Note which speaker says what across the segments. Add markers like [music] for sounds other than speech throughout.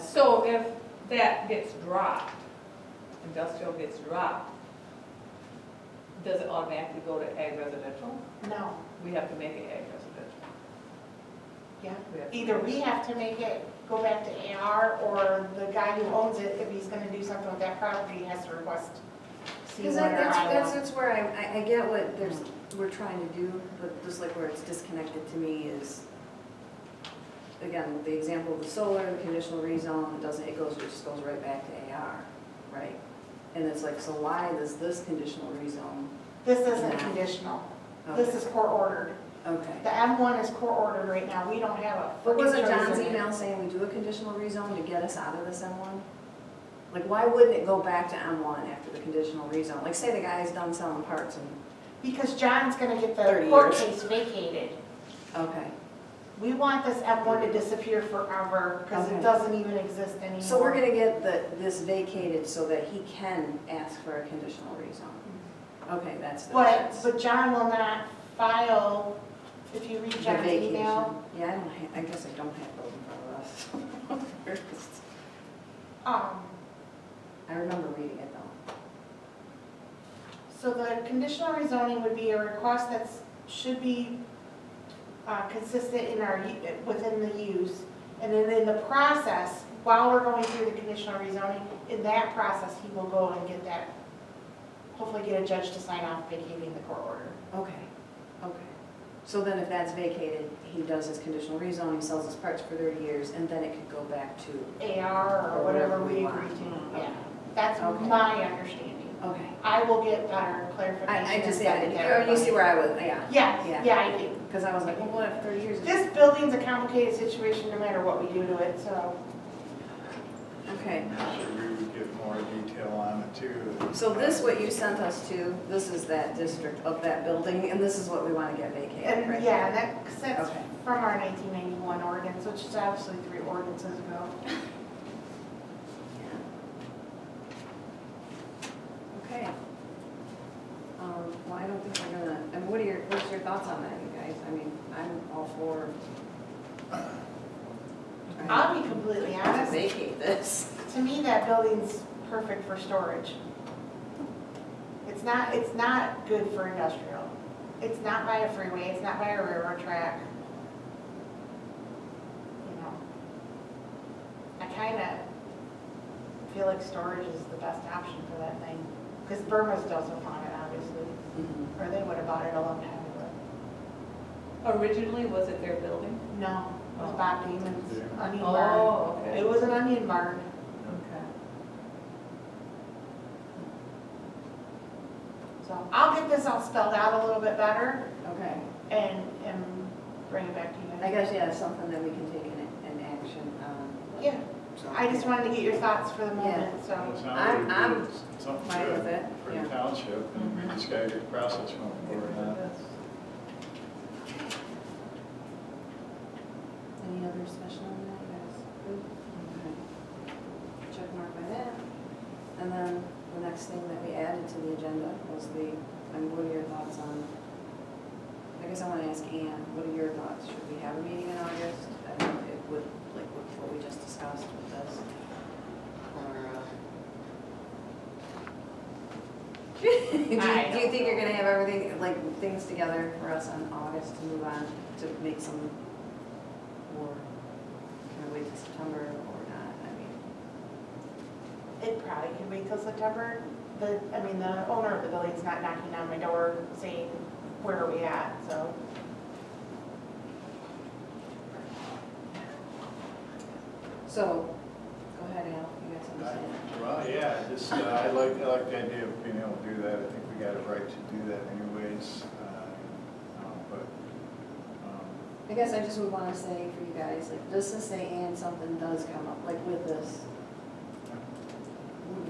Speaker 1: So if that gets dropped, industrial gets dropped, does it automatically go to ag residential?
Speaker 2: No,
Speaker 1: We have to make it ag residential.
Speaker 2: yeah.
Speaker 1: We have to-
Speaker 2: Either we have to make it go back to AR, or the guy who owns it, if he's gonna do something with that property, has to request C1
Speaker 3: Because
Speaker 2: or
Speaker 3: that- that's, that's,
Speaker 2: Iowa.
Speaker 3: that's where I, I, I get what there's, we're trying to do, but just like where it's disconnected to me is, again, the example of the solar, the conditional rezone, it doesn't, it goes, it just goes right back to AR, right? And it's like, so why does this conditional rezone?
Speaker 2: This isn't
Speaker 3: Yeah.
Speaker 2: conditional. This is court ordered.
Speaker 3: Okay.
Speaker 2: The M1 is court ordered right now. We don't have a.
Speaker 3: But wasn't
Speaker 2: freaking
Speaker 3: John's
Speaker 2: chosen.
Speaker 3: email saying we do a conditional rezone to get us out of this M1? Like, why wouldn't it go back to M1 after the conditional rezone? Like, say the guy's done selling parts and,
Speaker 2: Because John's gonna get the
Speaker 3: 30
Speaker 2: court
Speaker 3: years.
Speaker 2: case vacated.
Speaker 3: okay.
Speaker 2: We want this M1 to disappear forever, because it
Speaker 3: Okay.
Speaker 2: doesn't even exist anymore.
Speaker 3: So we're gonna get the, this vacated so that he can ask for a conditional rezone. Okay, that's the.
Speaker 2: But,
Speaker 3: that's
Speaker 2: but John will not file, if you read
Speaker 3: the
Speaker 2: John's
Speaker 3: vacation.
Speaker 2: email.
Speaker 3: Yeah, I don't have, I guess I don't have those in front of us. [laughs]
Speaker 2: Um,
Speaker 3: I remember reading it though.
Speaker 2: so the conditional rezoning would be a request that's, should be uh, consistent in our, u- within the use. And then in the process, while we're going through the conditional rezoning, in that process, he will go and get that, hopefully get a judge to sign off vacating the court order.
Speaker 3: Okay, okay. So then if that's vacated, he does his conditional rezone, he sells his parts for thirty years, and then it could go back to,
Speaker 2: AR or whatever we agree
Speaker 3: want.
Speaker 2: to,
Speaker 3: Okay.
Speaker 2: yeah. That's
Speaker 3: Okay.
Speaker 2: my understanding.
Speaker 3: okay.
Speaker 2: I will get better clarification.
Speaker 3: I, I just,
Speaker 2: and send it to
Speaker 3: yeah, oh, you see
Speaker 2: everybody.
Speaker 3: where I was, yeah.
Speaker 2: Yeah,
Speaker 3: Yeah.
Speaker 2: yeah, I do.
Speaker 3: Cause I was like, well, what if thirty years? is-
Speaker 2: This building's a complicated situation no matter what we do to it, so.
Speaker 3: Okay.
Speaker 4: So we would get more detail on it too.
Speaker 3: So this, what you sent us to, this is that district of that building, and this is what we want to get vacated, right?
Speaker 2: And yeah, that, 'cause that's
Speaker 3: Okay.
Speaker 2: from our 1991 ordinance, which is obviously three ordinances ago.
Speaker 3: Mm-hmm. Okay. Um, Well, I don't think we're gonna, I mean, what are your, what's your thoughts on that, you guys? I mean, I'm all for.
Speaker 2: Uh, I'll be completely
Speaker 3: to
Speaker 2: honest,
Speaker 3: Vacate this.
Speaker 2: to me, that building's perfect for storage. It's not, it's not good for industrial. It's not by a freeway, it's not by a railroad track. You know, I kind of feel like storage is the best option for that thing, because Burma's doesn't want it, obviously,
Speaker 3: Mhm.
Speaker 2: or they would have bought it a long time ago.
Speaker 1: Originally, was it their building?
Speaker 2: No, it was Bob Damon's
Speaker 4: Yeah.
Speaker 2: onion barn.
Speaker 1: Oh, okay.
Speaker 2: It was an onion barn.
Speaker 1: Okay.
Speaker 2: So I'll get this all spelled out a little bit better
Speaker 3: Okay.
Speaker 2: and, and bring it back to you.
Speaker 3: I guess, yeah, it's something that we can take an, an action on.
Speaker 2: Yeah,
Speaker 3: so.
Speaker 2: I just wanted to get your thoughts for the moment,
Speaker 4: Well, it
Speaker 2: so.
Speaker 4: sounds
Speaker 3: I'm-
Speaker 4: like
Speaker 3: I'm
Speaker 4: it's Something
Speaker 3: Fine with
Speaker 4: good
Speaker 3: it,
Speaker 4: for
Speaker 3: yeah. Mm-hmm.
Speaker 4: the township, and we just gotta get the process moving forward on it.
Speaker 3: Any other discussion on that, you guys? Good? Okay. Check mark by that. And then the next thing that we added to the agenda was the, I mean, what are your thoughts on, I guess I want to ask Ann, what are your thoughts? Should we have a meeting in August? I don't know, it would, like, what what we just discussed with this. Or, uh, [laughs] Do you,
Speaker 2: I
Speaker 3: do you
Speaker 2: don't
Speaker 3: think you're gonna have everything, like, things together for us on August to move on, to make some or can we wait till September or not? I mean,
Speaker 2: It probably could wait till September. The, I mean, the owner of the building's not knocking on my door saying, where are we at, so.
Speaker 3: so, go ahead, Al, you got something to say?
Speaker 4: Well, yeah, just, uh, I like, I like the idea of being able to do that, I think we got a right to do that anyways, uh, um, but, um,
Speaker 3: I guess I just would wanna say for you guys, like, just to say and something does come up, like with this,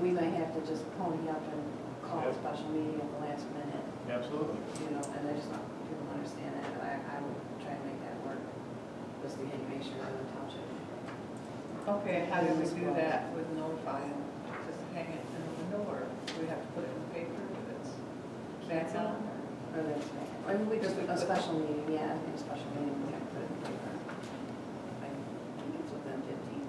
Speaker 3: we might have to just pony up and call a
Speaker 4: Yep.
Speaker 3: special meeting at the last minute,
Speaker 4: absolutely.
Speaker 3: you know, and I just want people to understand that, but I, I would try and make that work, just to get- make sure that the township
Speaker 1: Okay, and how do we do that with notifying? Just hang it in the window, or do we have to put it in the paper if it's back on?
Speaker 3: Or that's, I mean, we just, a special meeting, yeah, I think a special meeting, we have to put it in the paper.